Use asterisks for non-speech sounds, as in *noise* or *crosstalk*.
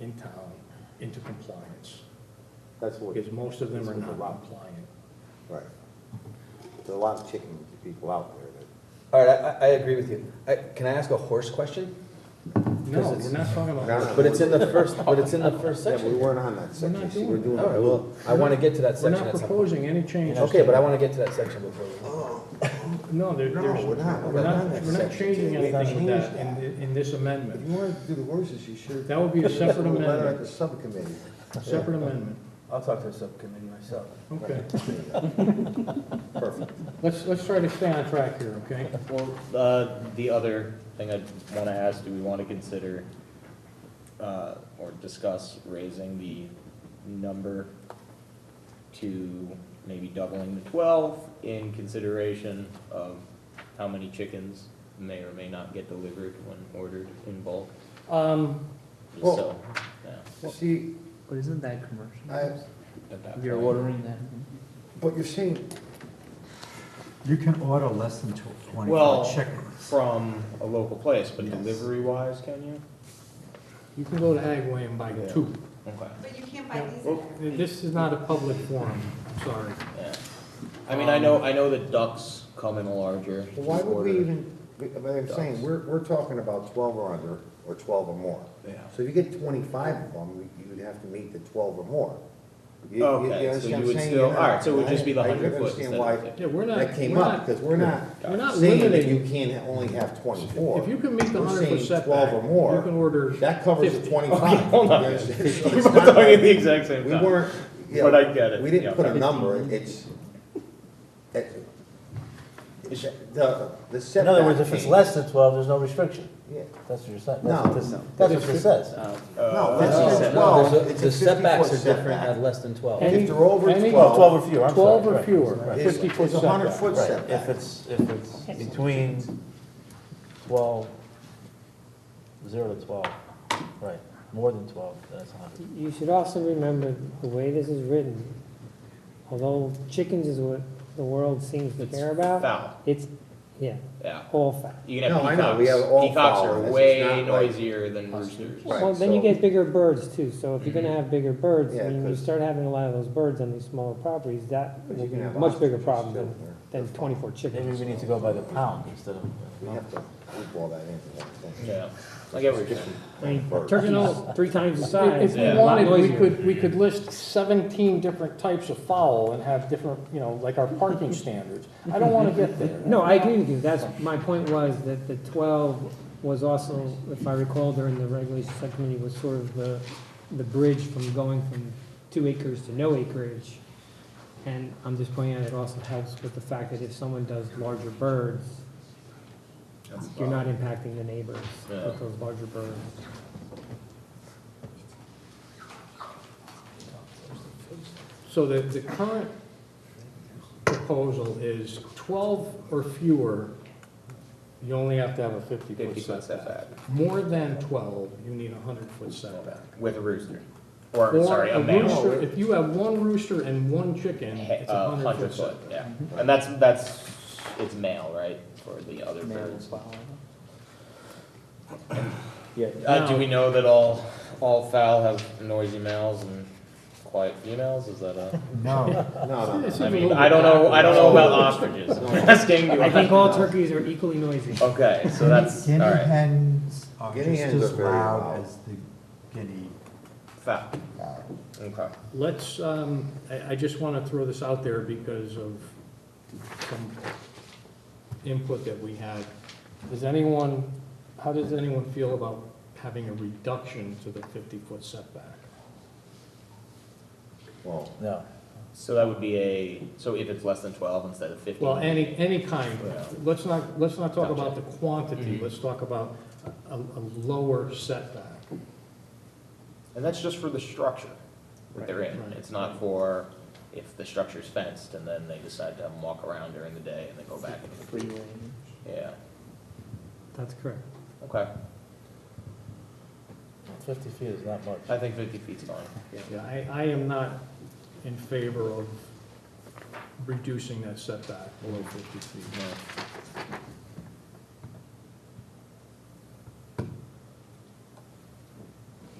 in town into compliance, That's what, because most of them are not That's what the- compliant. right. There's a lot of chicken people out there that. All right, I, I- I agree with you. I, can I ask a horse question? No, it's- we're not talking about. No, no. But it's in the first, but it's in *laughs* the first Yeah, but we section. All weren't on that section, see, doing we're it. doing. right, well, I want to get to that We're not section at some point. proposing any changes. Okay, but I to- want to get to that section before we. No, there- No, there's, we're we're not. not, We're we're not on that not section. changing We've anything with changed that in, that. in this If amendment, you wanted to do the horses, you should. That would be a separate Letter amendment. at the subcommittee. separate amendment. I'll talk to the subcommittee myself. Okay, Perfect. let's, let's try to stay on track here, okay? Well, uh, the other thing I'd want to ask, do we want to consider uh, or discuss raising the number to maybe doubling the 12 in consideration of how many chickens may or may not get delivered when ordered in bulk? Um, Just Well- So, yeah, See, But isn't that commercial? I, at that You're point. ordering that? but you're saying, You can order less than tw- Well- twenty-five chickens. From a local place, but Yes. delivery-wise, can you? you can go to Agway and buy Yeah. two. Okay. But you can't buy these. Well, in there. This is not a public forum, sorry. Yeah. I mean, I know, I know that ducks come in a larger why would order. we even, but I'm saying, we're, we're talking about twelve or under, or twelve or more. Yeah. So if you get twenty-five of them, you'd have to meet the twelve or more. You- you- you Okay, so understand you what I'm would saying? still- You're not- alright, so it would just be the I- I 100 foot understand instead why of fifty. *laughs* Yeah, we're not. That came we're up, not- because we're not We're not saying that you limiting, can't only have twenty-four. if you can meet the We're hundred saying percent Twelve or you can more, order. that covers the 50. twenty-five. hold on. You understand? So We're it's both not talking like- at the exact same We time. weren't, yeah. But I get it. We Yeah. didn't put a number, it's, it- It's- the, the setback. In other words, if it's change. less than twelve, there's no restriction. Yeah. That's what you're saying. No, That's what this- no. That's what this says. No, Uh, that's uh, just No, twelve, there's a- it's a The setbacks 50 are -foot different setback. at less than twelve. Any- If they're over any- 12 Twelve or fewer, I'm sorry. Twelve or right. fewer, Right. It's fifty foot it's a hundred setback. foot Right. setback. If it's, if it's between twelve, zero to twelve, right, more than twelve, that's a hundred. You should also remember, the way this is written, although chickens is what the world seems to It's care about, Foul, it's, yeah, yeah. all foul. You can have No, I peacocks. know, we have all Peacocks foul, are it's- it's way not like- noisier than roosters. Right, Well, then you so- Mm-hmm. get bigger birds too, so if you're gonna have bigger birds, Yeah, I mean, you 'cause- start having a lot of those birds on these smaller properties, that But will you be can a have much bigger ostriches problem too. than, than twenty-four Maybe chickens. we need to go by the pound instead of. We have to group all that into one thing. Yeah, I get what you're saying. I mean, Birds. turkeys, three times the If size, we Yeah. a lot wanted, we noisier. could, we could list seventeen different types of fowl and have different, you know, like our parking standards. I don't wanna get there. No, I agree with you, that's, my point was that the twelve was also, if I recall during the regulation subcommittee, was sort of the, the bridge from going from two acres to no acreage. And I'm just pointing out, it also helps with the fact that if someone does larger birds, That's you're foul. not impacting the neighbors Yeah. with those larger birds. So the, the current proposal is twelve or fewer, you only have to have a fifty foot Fifty foot setback. setback More than twelve, you need a hundred foot setback. with a rooster, or, Or sorry, a rooster- male. If you have one rooster and one chicken, it's a Uh, hundred hundred foot foot, setback. yeah. And that's, that's, it's male, right, for the other birds? Yeah. Uh, do we know that all, all fowl have noisy males and quiet females? Is that a? No, *laughs* No, no, no. It's I a mean, little I don't know, I don't know about ostriches. No. *laughs* I'm asking you. I think all turkeys are equally noisy. Okay, so that's, all guinea right, hens are Guinea just hens as are very loud loud. as the guinea foul, fowl. okay. Let's, um, I, I just want to throw this out there because of some input that we had. Does anyone, how does anyone feel about having a reduction to the fifty-foot setback? Well, No. So that would be a, so if it's less than twelve instead of fifteen? Well, any, any kind, Yeah. let's not, let's not talk about the quantity, Mhm. let's talk about a, a lower setback. And that's just for the structure that they're in. Right. It's not for if the structure's fenced and then they decide to have them walk around during the day and then go back. Yeah, That's correct. okay. Fifty feet is not much. I think fifty feet's fine. Yeah, I, I am not in favor of reducing that setback below fifty feet. Yeah.